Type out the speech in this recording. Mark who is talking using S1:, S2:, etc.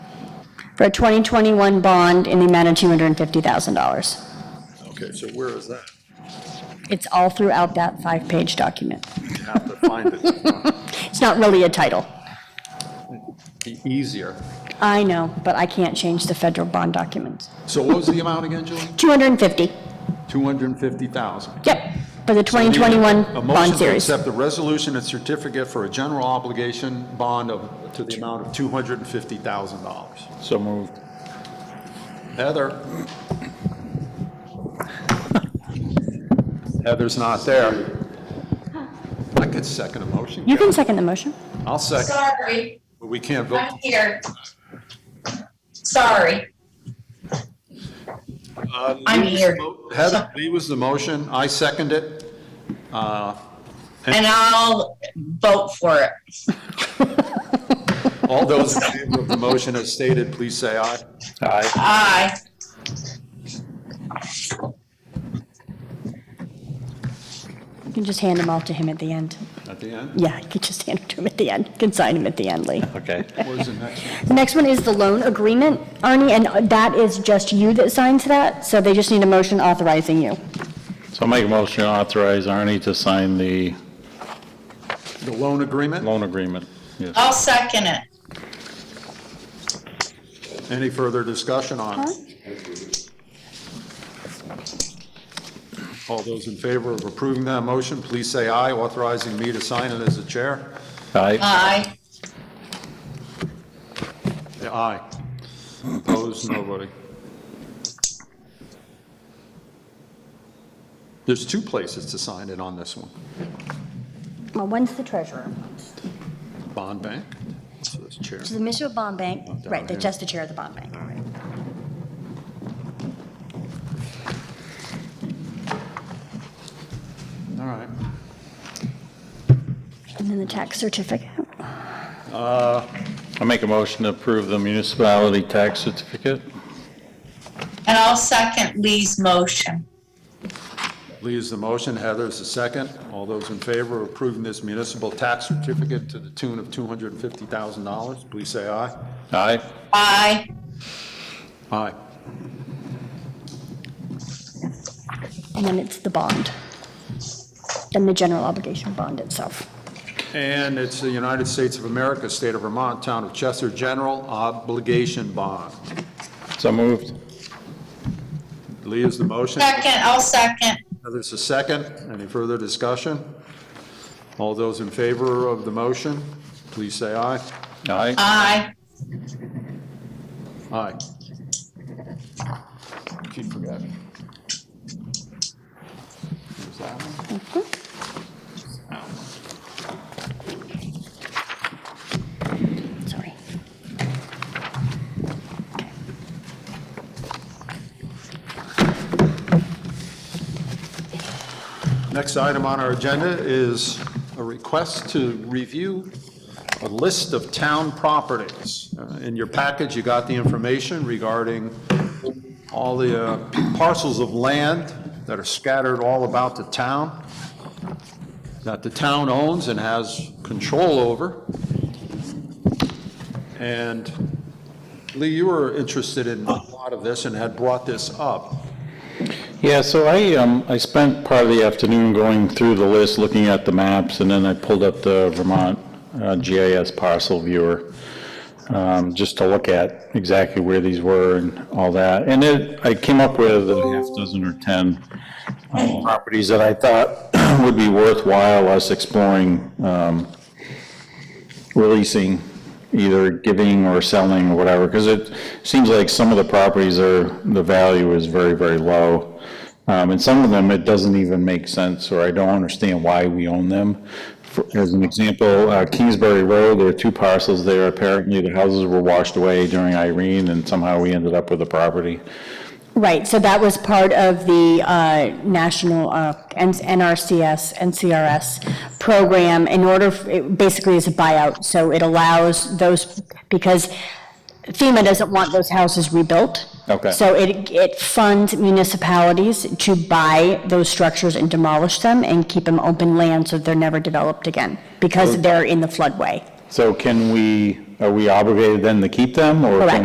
S1: for a 2021 bond in the amount of $250,000.
S2: Okay, so where is that?
S1: It's all throughout that five-page document.
S2: You have to find it.
S1: It's not really a title.
S2: Be easier.
S1: I know, but I can't change the federal bond documents.
S2: So what was the amount again, Julie?
S1: 250,
S2: 250,000.
S1: yep, for the 2021
S2: A
S1: bond
S2: motion to
S1: series.
S2: accept the resolution and certificate for a general obligation bond of, to the amount of $250,000.
S3: So moved.
S2: Heather? Heather's not there. I could second a motion.
S1: You can second the motion.
S2: I'll second,
S4: Sorry,
S2: but we can't vote.
S4: I'm here. Sorry.
S2: Uh,
S4: I'm
S2: Lee was
S4: here.
S2: the mo- Heather, Lee was the motion, I second it. Uh,
S4: And I'll vote for it.
S2: All those in favor of the motion as stated, please say aye.
S3: Aye.
S4: Aye.
S1: You can just hand them all to him at the end.
S2: At the end,
S1: Yeah, you can just hand them to him at the end. You can sign them at the end, Lee.
S3: Okay.
S2: what is the next one?
S1: The next one is the loan agreement, Arnie, and that is just you that signs that, so they just need a motion authorizing you.
S3: So I make a motion to authorize Arnie to sign the
S2: The loan agreement?
S3: loan agreement. Yes.
S4: I'll second it.
S2: Any further discussion on it? All those in favor of approving that motion, please say aye, authorizing me to sign it as the chair.
S3: Aye.
S4: Aye.
S2: Yeah, Aye. Opposed, nobody. There's two places to sign it on this one.
S1: Well, one's the treasurer.
S2: Bond Bank, so that's chair.
S1: So the Mississippi Bond Bank,
S2: Down
S1: right, they're
S2: here.
S1: just the chair of the bond bank.
S2: All right.
S1: And then the tax certificate.
S3: I make a motion to approve the municipality tax certificate.
S4: And I'll second Lee's motion.
S2: Lee is the motion, Heather is the second. All those in favor of approving this municipal tax certificate to the tune of $250,000, please say aye.
S3: Aye.
S4: Aye.
S2: Aye.
S1: And then it's the bond. Then the general obligation bond itself.
S2: And it's the United States of America, State of Vermont, Town of Chester General Obligation Bond.
S3: So moved.
S2: Lee is the motion,
S4: Second, I'll second.
S2: Heather is the second. Any further discussion? All those in favor of the motion, please say aye.
S3: Aye.
S4: Aye.
S2: Aye. Keep forgetting. There's that one.
S1: Sorry.
S2: Next item on our agenda is a request to review a list of town properties. Uh, In your package, you got the information regarding all the uh, parcels of land that are scattered all about the town, that the town owns and has control over. And Lee, you were interested in a lot of this and had brought this up.
S3: Yeah, so I, um, I spent part of the afternoon going through the list, looking at the maps, and then I pulled up the Vermont uh, GIS parcel viewer, um, just to look at exactly where these were and all that. And it, I came up with a half dozen or 10 um, properties that I thought would be worthwhile us exploring, um, releasing, either giving or selling or whatever, because it seems like some of the properties are, the value is very, very low. Um, and some of them, it doesn't even make sense, or I don't understand why we own them. For- As an example, uh, Kingsbury Road, there are two parcels there, apparently the houses were washed away during Irene, and somehow we ended up with the property.
S1: Right, so that was part of the uh, national uh, N- NRCS, NCRS program in order, f- it basically is a buyout. So it allows those, because FEMA doesn't want those houses rebuilt.
S3: Okay.
S1: So it, it funds municipalities to buy those structures and demolish them and keep them open land so they're never developed again because they're in the floodway.
S3: So can we, are we obligated then to keep them, or can
S1: Correct.